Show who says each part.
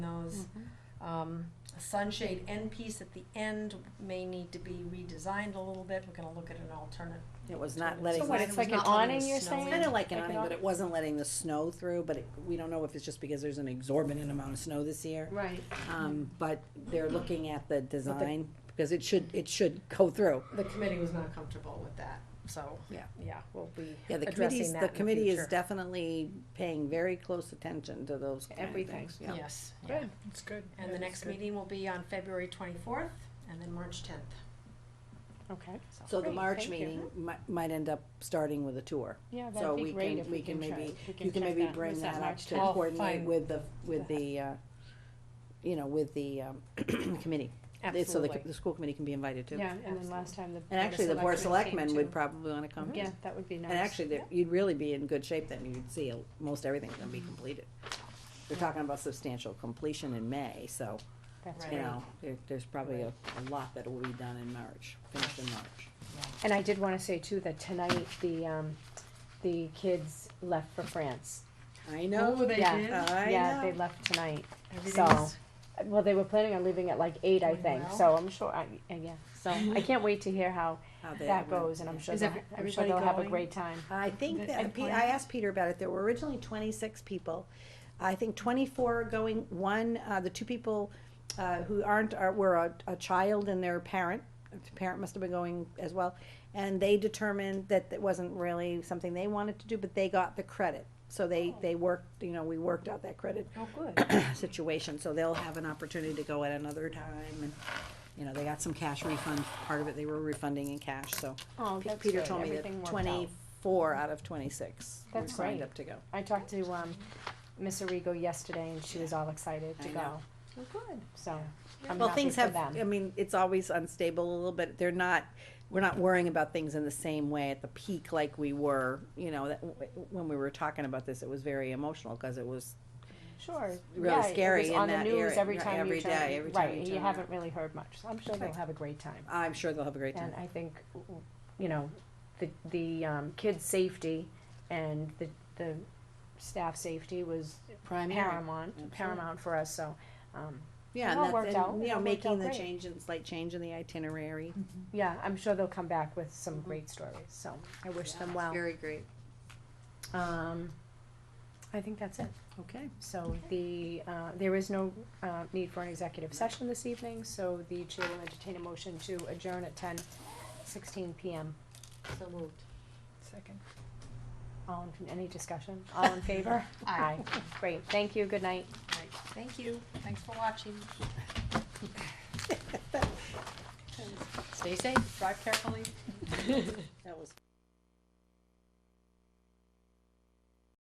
Speaker 1: Mm-hmm.
Speaker 2: Um, sunshade end piece at the end may need to be redesigned a little bit, we're gonna look at an alternate.
Speaker 1: It was not
Speaker 2: So
Speaker 1: letting,
Speaker 2: It's
Speaker 3: So what,
Speaker 2: not- it was
Speaker 3: it's like an
Speaker 2: not letting
Speaker 3: awning,
Speaker 2: the
Speaker 3: you're
Speaker 2: snow
Speaker 3: saying?
Speaker 2: in.
Speaker 1: kinda like an
Speaker 3: Like an
Speaker 1: awning, but it
Speaker 3: awning?
Speaker 1: wasn't letting the snow through, but it, we don't know if it's just because there's an exorbitant amount of snow this year.
Speaker 2: Right.
Speaker 1: Um, but they're looking at the design, because it should, it should go through.
Speaker 2: The committee was not comfortable with that, so.
Speaker 1: Yeah.
Speaker 2: Yeah, we'll be
Speaker 1: Yeah, the
Speaker 2: addressing
Speaker 1: committee's,
Speaker 2: that in
Speaker 1: the
Speaker 2: the
Speaker 1: committee is
Speaker 2: future.
Speaker 1: definitely paying very close attention to those kind of
Speaker 3: Everything.
Speaker 1: things, yeah.
Speaker 2: Yes,
Speaker 3: Good.
Speaker 4: It's good.
Speaker 2: and the next meeting will be on February twenty-fourth and then March tenth,
Speaker 3: Okay,
Speaker 2: so.
Speaker 1: So the
Speaker 3: Great,
Speaker 1: March
Speaker 3: thank you.
Speaker 1: meeting might, might end up starting with a tour.
Speaker 3: yeah,
Speaker 1: So
Speaker 3: that'd
Speaker 1: we
Speaker 3: be great
Speaker 1: can-
Speaker 3: if
Speaker 1: we
Speaker 3: we
Speaker 1: can
Speaker 3: can try.
Speaker 1: maybe-
Speaker 3: we can
Speaker 1: You can
Speaker 3: check
Speaker 1: maybe
Speaker 3: that.
Speaker 1: bring
Speaker 3: Was
Speaker 1: that up
Speaker 3: March
Speaker 1: to
Speaker 3: 10th?
Speaker 2: Oh,
Speaker 1: coordinate
Speaker 2: fine.
Speaker 1: with the, with the, uh, you know, with the, um, committee. It's So the,
Speaker 2: Absolutely.
Speaker 1: the school committee can be invited too.
Speaker 3: Yeah, and
Speaker 2: Absolutely.
Speaker 3: then last time the.
Speaker 1: And actually, the board of selectmen would
Speaker 3: came
Speaker 1: probably wanna come.
Speaker 3: too. Mm-hmm. Yeah, that would be nice.
Speaker 1: And actually, there- you'd really be in good shape then, you'd see a- most everything's gonna be completed. They're talking about substantial completion in May, so,
Speaker 3: That's
Speaker 2: Right.
Speaker 1: you
Speaker 3: great.
Speaker 1: know, there, there's probably a, a lot that will be done in March, finished in March.
Speaker 3: And I did wanna say too, that tonight, the, um, the kids left for France.
Speaker 1: I know,
Speaker 2: they
Speaker 3: yeah,
Speaker 1: Uh,
Speaker 2: did?
Speaker 3: Yeah,
Speaker 1: I
Speaker 3: they
Speaker 1: know.
Speaker 3: left tonight.
Speaker 2: Everything's-
Speaker 3: Well, they were planning on leaving at like eight, I
Speaker 2: Going
Speaker 3: think,
Speaker 2: well?
Speaker 3: so I'm sure, I, uh, yeah, so I can't wait to hear how
Speaker 1: How they
Speaker 3: that
Speaker 1: went.
Speaker 3: goes, and I'm sure
Speaker 2: Is
Speaker 3: they'll,
Speaker 2: every-
Speaker 3: I'm sure they'll
Speaker 2: everybody
Speaker 3: have a
Speaker 2: going?
Speaker 3: great time.
Speaker 1: I think
Speaker 2: Good
Speaker 1: that, Pe-
Speaker 2: plan.
Speaker 1: I asked Peter about it, there were originally twenty-six people. I think twenty-four are going, one, uh, the two people, uh, who aren't, are, were a, a child and their parent, the parent must have been going as well, and they determined that it wasn't really something they wanted to do, but they got the credit. So they, they worked, you know, we worked out that credit
Speaker 2: Oh, good.
Speaker 1: situation, so they'll have an opportunity to go at another time, and, you know, they got some cash refund, part of it they were refunding in cash, so.
Speaker 3: Oh,
Speaker 1: Pe-
Speaker 3: that's
Speaker 1: Peter
Speaker 3: good.
Speaker 1: told me
Speaker 3: Everything
Speaker 1: that
Speaker 3: worked out.
Speaker 1: twenty-four out of twenty-six were
Speaker 3: That's
Speaker 1: signed
Speaker 3: great.
Speaker 1: up to go.
Speaker 3: I talked to, um, Miss Arrigo yesterday, and she was all excited to
Speaker 1: I
Speaker 3: go,
Speaker 1: know.
Speaker 2: Oh, good.
Speaker 3: so I'm
Speaker 1: Well,
Speaker 3: happy
Speaker 1: things
Speaker 3: for
Speaker 1: have,
Speaker 3: them.
Speaker 1: I mean, it's always unstable a little bit, they're not, we're not worrying about things in the same way at the peak like we were, you know, that, when we were talking about this, it was very emotional, cause it was
Speaker 3: Sure.
Speaker 1: really
Speaker 3: Yeah, it
Speaker 1: scary
Speaker 3: was
Speaker 1: in
Speaker 3: on the
Speaker 1: that
Speaker 3: news
Speaker 1: area,
Speaker 3: Every
Speaker 1: right,
Speaker 3: time
Speaker 1: every
Speaker 3: you turn,
Speaker 1: day, every time
Speaker 3: right,
Speaker 1: you
Speaker 3: and
Speaker 1: turn
Speaker 3: you
Speaker 1: it.
Speaker 3: haven't really heard much. So I'm sure they'll
Speaker 1: Right.
Speaker 3: have a great time.
Speaker 1: I'm sure they'll have a great time.
Speaker 3: And I think, you know, the the um, kids' safety and the the staff safety was
Speaker 1: Primary.
Speaker 3: paramount
Speaker 1: Absolutely.
Speaker 3: paramount for us. So. Um,
Speaker 1: Yeah,
Speaker 3: It
Speaker 1: and
Speaker 3: all
Speaker 1: that's,
Speaker 3: worked out.
Speaker 1: and,
Speaker 3: It
Speaker 1: you know,
Speaker 3: all worked
Speaker 1: making
Speaker 3: out
Speaker 1: the
Speaker 3: great.
Speaker 1: change, and slight change in the itinerary.
Speaker 4: Mm-hmm.
Speaker 3: yeah, I'm sure they'll come back with some
Speaker 1: Mm-hmm.
Speaker 2: Mhm.
Speaker 3: great stories. So I wish them well.
Speaker 1: Very great.
Speaker 3: Um, I think that's it.
Speaker 1: Okay.
Speaker 3: So the, uh, there is no, uh, need for an executive session this evening, so the chair will entertain a motion to adjourn at ten sixteen PM.
Speaker 2: So moved.
Speaker 4: Second.
Speaker 3: All in, any discussion? All in favor?
Speaker 2: Aye.
Speaker 3: Great, thank you, good night.
Speaker 2: Right. Thank you, thanks for watching. Stay safe, drive carefully.